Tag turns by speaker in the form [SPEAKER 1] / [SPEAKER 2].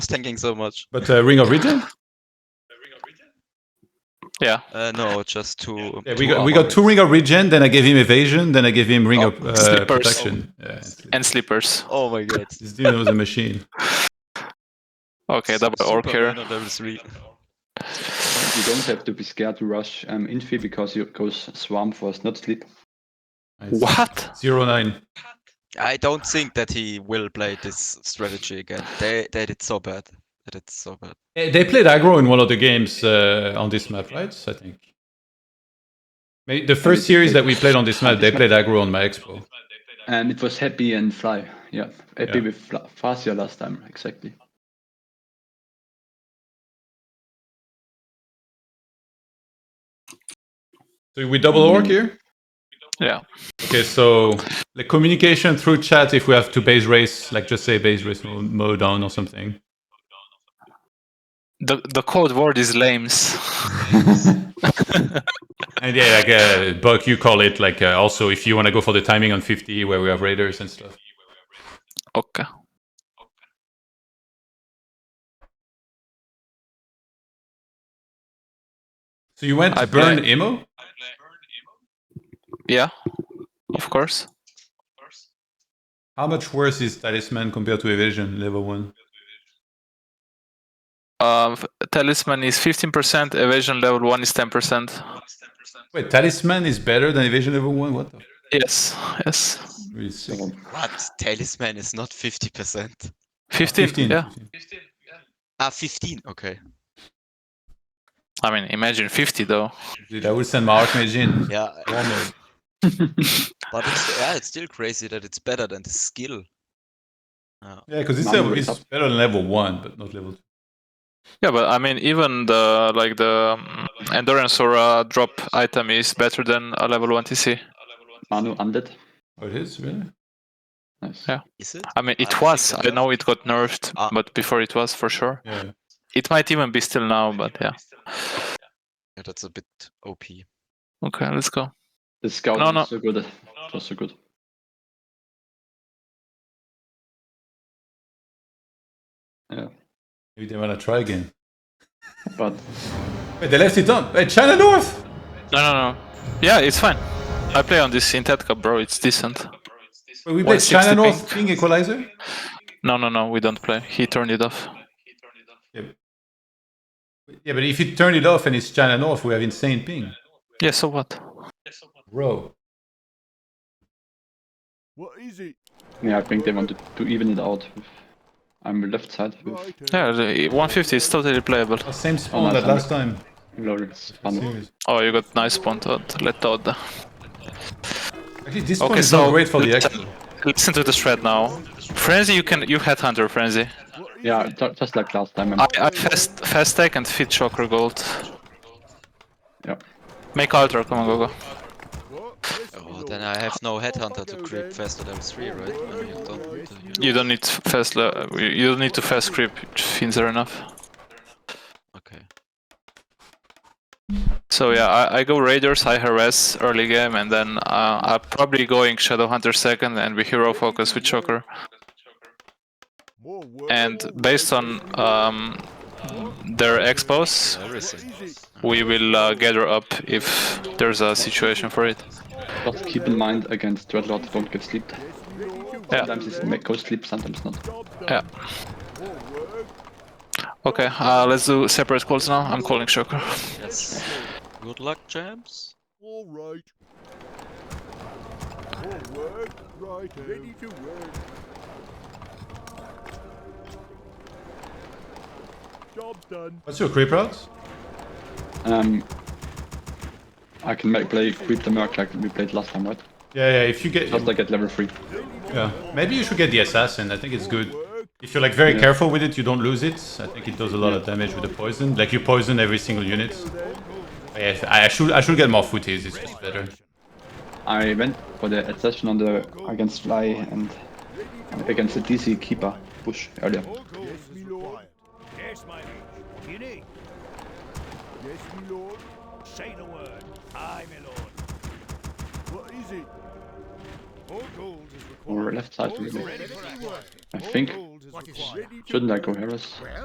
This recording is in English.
[SPEAKER 1] was thinking so much.
[SPEAKER 2] But uh, Ring of Regen?
[SPEAKER 3] Yeah.
[SPEAKER 1] Uh, no, just two. um,
[SPEAKER 2] Yeah,
[SPEAKER 1] two
[SPEAKER 2] we got, we
[SPEAKER 1] armor
[SPEAKER 2] got two Ring of Regen, then I gave him Evasion, then I gave him Ring
[SPEAKER 3] Oh,
[SPEAKER 2] of uh,
[SPEAKER 3] Slippers.
[SPEAKER 2] Protection. Yeah, and sleep.
[SPEAKER 3] And sleepers.
[SPEAKER 1] rings. Oh my god.
[SPEAKER 2] this dude knows the machine.
[SPEAKER 3] Okay, double orc here.
[SPEAKER 1] Superman on level three.
[SPEAKER 4] You don't have to be scared to rush um, Infi because you goes Swarm Force, not Sleep.
[SPEAKER 2] Nice.
[SPEAKER 3] What?
[SPEAKER 2] Zero nine.
[SPEAKER 1] I don't think that he will play this strategy again. They they did so bad. They did so bad.
[SPEAKER 2] Eh, They played aggro in one of the games uh, on this map, right? I think. Maybe the first series that we played on this map, they played aggro on my expo.
[SPEAKER 4] And it was Happy and Fly. Yeah, Happy
[SPEAKER 2] Yeah.
[SPEAKER 4] with Fla- Farsia last time, exactly.
[SPEAKER 2] So we double orc here?
[SPEAKER 3] Yeah.
[SPEAKER 2] Okay, so the communication through chat if we have to base race, like just say base race mo- mode down or something.
[SPEAKER 3] The the code word is lames.
[SPEAKER 2] And yeah, like uh, Buck, you call it like uh, also if you want to go for the timing on 50 where we have raiders and stuff.
[SPEAKER 3] okay.
[SPEAKER 2] So you went
[SPEAKER 3] I
[SPEAKER 2] I burn
[SPEAKER 3] play-
[SPEAKER 2] Emo?
[SPEAKER 3] Yeah. Of course.
[SPEAKER 2] How much worse is Talisman compared to Evasion level 1?
[SPEAKER 3] Um, talisman is 15%, evasion level 1 is 10%.
[SPEAKER 2] Wait, Talisman is better than Evasion level 1? What the f-
[SPEAKER 3] Yes, yes.
[SPEAKER 2] really sick.
[SPEAKER 4] So,
[SPEAKER 1] What? Talisman is not 50%.
[SPEAKER 3] 15, yeah.
[SPEAKER 2] 15.
[SPEAKER 1] Ah, 15. Okay.
[SPEAKER 3] I mean, imagine 50 though.
[SPEAKER 2] Dude, I would send my Archmage in.
[SPEAKER 1] Yeah.
[SPEAKER 2] War mode.
[SPEAKER 1] But it's, yeah, it's still crazy that it's better than the skill.
[SPEAKER 2] Yeah, because it's,
[SPEAKER 4] Number
[SPEAKER 2] a-
[SPEAKER 4] is
[SPEAKER 2] it's better than level 1, but not level 2.
[SPEAKER 3] Yeah, but I mean, even the like the um, endurance or uh, drop item is better than a level 1 TC.
[SPEAKER 4] Manu Undead.
[SPEAKER 2] Oh, it is? Really?
[SPEAKER 4] Nice.
[SPEAKER 3] Yeah.
[SPEAKER 1] Is it?
[SPEAKER 3] I mean,
[SPEAKER 1] I
[SPEAKER 3] it
[SPEAKER 1] think
[SPEAKER 3] was.
[SPEAKER 1] it
[SPEAKER 3] I know it got nerfed,
[SPEAKER 1] Ah.
[SPEAKER 3] but before it was for sure.
[SPEAKER 2] Yeah.
[SPEAKER 3] It might even be still now, but yeah.
[SPEAKER 1] Yeah, that's a bit OP.
[SPEAKER 3] Okay, let's go.
[SPEAKER 4] The scout
[SPEAKER 3] No,
[SPEAKER 4] was
[SPEAKER 3] no.
[SPEAKER 4] so good. It was so good.
[SPEAKER 2] Maybe they want to try again.
[SPEAKER 4] But
[SPEAKER 2] Wait, they left it on. Wait, China North!
[SPEAKER 3] No, no, no. Yeah, it's fine. I play on this in Ted Cup, bro. It's decent.
[SPEAKER 2] Wait, we played China
[SPEAKER 3] 160
[SPEAKER 2] North King Equalizer?
[SPEAKER 3] No, no, no. We don't play. He turned it off.
[SPEAKER 2] Yeah, but if you turn it off and it's China North, we have insane ping.
[SPEAKER 3] Yeah, so what?
[SPEAKER 2] Bro.
[SPEAKER 5] What is it?
[SPEAKER 4] yeah, I think they wanted to even it out. With, I'm left side with
[SPEAKER 5] Righto.
[SPEAKER 3] Yeah, the 150 is totally playable.
[SPEAKER 2] Oh, same spawn
[SPEAKER 4] Oh,
[SPEAKER 2] that
[SPEAKER 4] nice.
[SPEAKER 2] last time.
[SPEAKER 4] Glorious Manu.
[SPEAKER 2] Serious.
[SPEAKER 3] Oh, you got nice point out. Let out. the-
[SPEAKER 2] Actually, this spawn
[SPEAKER 3] Okay,
[SPEAKER 2] is
[SPEAKER 3] so
[SPEAKER 2] Oh, not great for the action.
[SPEAKER 3] listen, listen to the shred now. Frenzy, you can you headhunter frenzy.
[SPEAKER 4] Yeah, ju- just like last time.
[SPEAKER 3] I,
[SPEAKER 4] I'm,
[SPEAKER 3] I fast fast tech and feed choker gold.
[SPEAKER 4] yeah.
[SPEAKER 3] Make ultra. Come on, go go.
[SPEAKER 5] What?
[SPEAKER 1] Oh, then I have no headhunter to creep faster level 3, right? I mean, I don't want to, you know.
[SPEAKER 3] You don't need fast. Le- you you don't need to fast creep. Fins are enough.
[SPEAKER 1] Okay.
[SPEAKER 3] So yeah, I, I go Raiders, I harass early game, and then uh, I'm probably going Shadowhunter second and be hero focus with Choker. And based on um, their expos,
[SPEAKER 1] Everything.
[SPEAKER 3] we will uh, gather up if there's a situation for it.
[SPEAKER 4] But keep in mind against Dreadlord, don't give sleep.
[SPEAKER 3] Yeah,
[SPEAKER 4] Sometimes it ma- goes sleep, sometimes not.
[SPEAKER 3] yeah. Okay, uh, let's do separate calls now. I'm calling Choker.
[SPEAKER 1] Yes. Good luck, champs.
[SPEAKER 5] All right. All work. Right. Ready to work. Job done.
[SPEAKER 2] What's your creep route?
[SPEAKER 4] Um, I can make, play Creep the Merc like we played last time, right?
[SPEAKER 2] Yeah, yeah, if you get.
[SPEAKER 4] Just like at level 3.
[SPEAKER 2] Yeah. Maybe you should get the assassin. I think it's good.
[SPEAKER 5] Work.
[SPEAKER 2] If you're like very careful with it, you don't lose it. I think it does a lot of damage with the poison. Like you poison every single unit. Yeah, I I should I should get more footies. It's just better.
[SPEAKER 4] I went for the accession on the against Fly and against the DC Keeper push earlier.
[SPEAKER 5] Yes, me lord. Yes, my liege. You need. Yes, me lord. Say the word. Aye, my lord. What is it?
[SPEAKER 4] Or left side, maybe. I think.
[SPEAKER 5] What is
[SPEAKER 4] Shouldn't I go Harris?